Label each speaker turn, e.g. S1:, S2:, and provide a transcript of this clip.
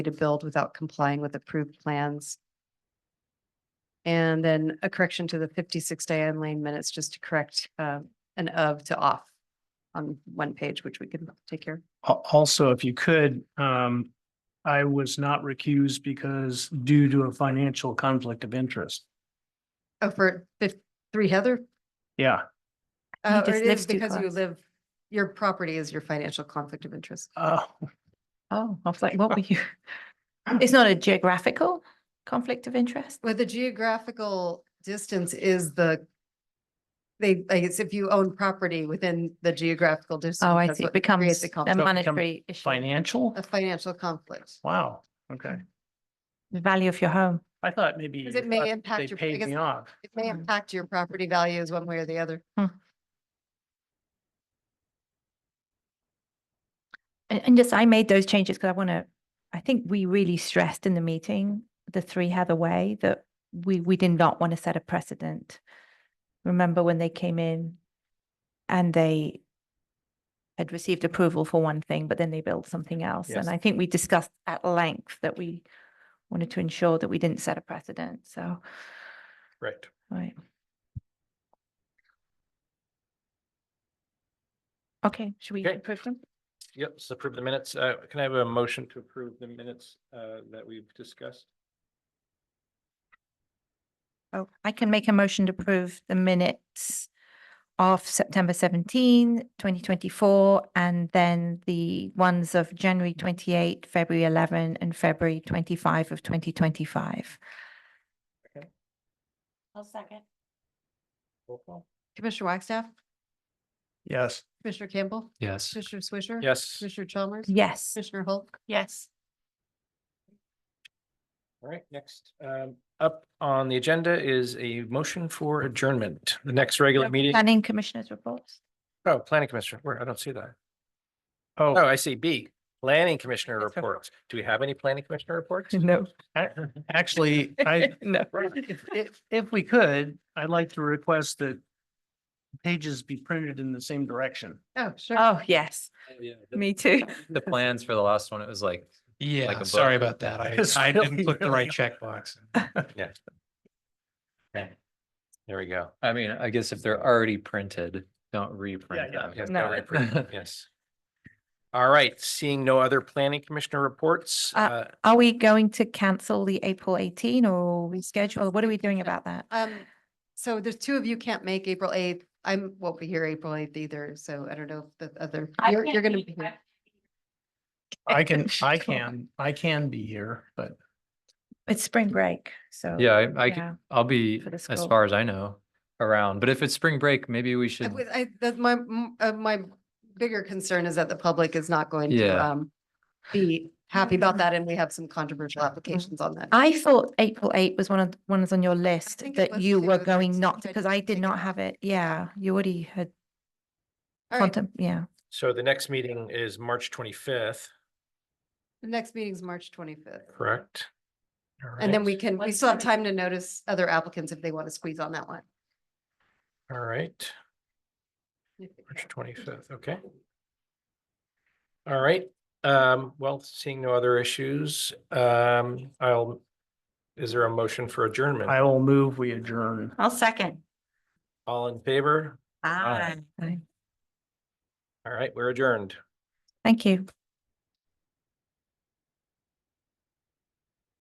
S1: to build without complying with approved plans. And then a correction to the fifty-six Diane Lane minutes, just to correct uh, an of to off on one page, which we can take care. of.
S2: Al- also, if you could, um, I was not recused because due to a financial conflict of interest.
S1: Oh, for fif- three Heather?
S2: Yeah,
S3: I
S1: Uh,
S3: think
S1: Or
S3: it's
S1: it is
S3: next to
S1: because you
S3: class.
S1: live, your property is your financial conflict of interest.
S2: uh,
S3: Oh, I was like, what were you? It's not a geographical conflict of interest?
S1: Well, the geographical distance is the, they, like, it's if you own property within the geographical distance.
S3: Oh, I
S1: that's
S3: see. It
S1: what creates
S3: becomes
S1: the
S3: a
S1: conflict,
S2: becomes
S3: monetary issue,
S2: financial?
S1: A financial conflict.
S2: Wow, okay.
S3: the value of your home.
S2: I thought maybe.
S1: Because
S2: you
S1: it may
S2: thought
S1: impact
S2: They
S1: your- I
S2: paid
S1: guess-
S2: me off.
S1: It may
S3: Mhm.
S1: impact your property values one way or the other.
S3: And, and just, I made those changes because I want to, I think we really stressed in the meeting, the three Heather way, that we, we did not want to set a precedent. Remember when they came in and they had received approval for one thing, but then they built something else.
S2: Yes.
S3: And I think we discussed at length that we wanted to ensure that we didn't set a precedent. So,
S2: Right.
S3: right. Okay, should we
S4: Okay.
S3: approve them?
S4: Yep, so approve the minutes. Uh, can I have a motion to approve the minutes, uh, that we've discussed?
S3: Oh, I can make a motion to approve the minutes of September 17, 2024, and then the ones of January twenty-eight, February eleven, and February twenty-five of twenty twenty-five. I'll second.
S4: Roll call?
S1: Commissioner Wagstaff,
S2: Yes.
S1: Commissioner Campbell,
S5: Yes.
S1: Commissioner Swisher.
S4: Yes,
S1: Commissioner Chalmers.
S3: Yes.
S1: Commissioner Hulk.
S3: Yes.
S4: all right, next, um, up on the agenda is a motion for adjournment. The next regular meeting,
S3: Planning Commissioners reports.
S4: oh, planning commissioner, where, I don't see that. Oh,
S2: Oh,
S4: I see B, planning commissioner
S3: Yes, sir.
S4: reports. Do we have any planning commissioner reports?
S3: No.
S2: actually, I,
S3: No.
S2: if, if- if we could, I'd like to request that pages be printed in the same direction.
S1: Oh, sure.
S3: Oh, yes,
S4: Yeah.
S3: me too.
S6: The plans for the last one, it was like, Like a
S5: Yeah,
S6: book.
S5: sorry about that. I,
S2: It's
S5: I
S2: really,
S5: didn't click the
S2: really
S5: right checkbox.
S4: There we go.
S6: I mean, I guess if they're already printed, don't reprint
S2: yeah,
S6: them.
S4: Yes,
S3: No.
S4: got it. Yes. All right, seeing no other planning commissioner reports,
S3: Uh,
S4: uh,
S3: Are we going to cancel the April eighteen or reschedule? What are we doing about that?
S1: Um, so there's two of you can't make April eighth. I'm, won't be here April eighth either, so I don't know if the other, you're, you're gonna be here.
S2: I can, I can, I can be here, but
S3: It's spring break, so.
S6: Yeah, I, I
S3: Yeah.
S6: can, I'll be,
S3: For the
S6: as
S3: school.
S6: far as I know, around, but if it's spring break, maybe we
S1: I
S6: should,
S1: was- I, that's my, m- uh, my bigger concern is that the public is not going to,
S6: Yeah.
S1: um, be happy about that, and we have some controversial applications on that.
S3: Mm-hmm. I thought April eight was one of the ones on your list
S1: think it
S3: that
S1: was
S3: you
S1: too,
S3: were
S1: and I
S3: going
S1: just
S3: not,
S1: couldn't
S3: because I
S1: think
S3: did not
S1: about
S3: have it. Yeah, you already had
S1: All right,
S3: quantum, yeah.
S4: so the next meeting is March twenty-fifth,
S1: the next meeting's March twenty-fifth.
S4: correct? All
S1: And then
S4: right.
S1: we can, we
S3: Let's
S1: still have
S3: do it.
S1: time to notice other applicants if they want to squeeze on that one.
S4: All right. March twenty-fifth, okay. All right, um, well, seeing no other issues, um, I'll, is there a motion for adjournment?
S2: I will move, we adjourn.
S3: I'll second.
S4: All in favor? Aye.
S3: Thank
S4: All right, we're adjourned.
S3: you.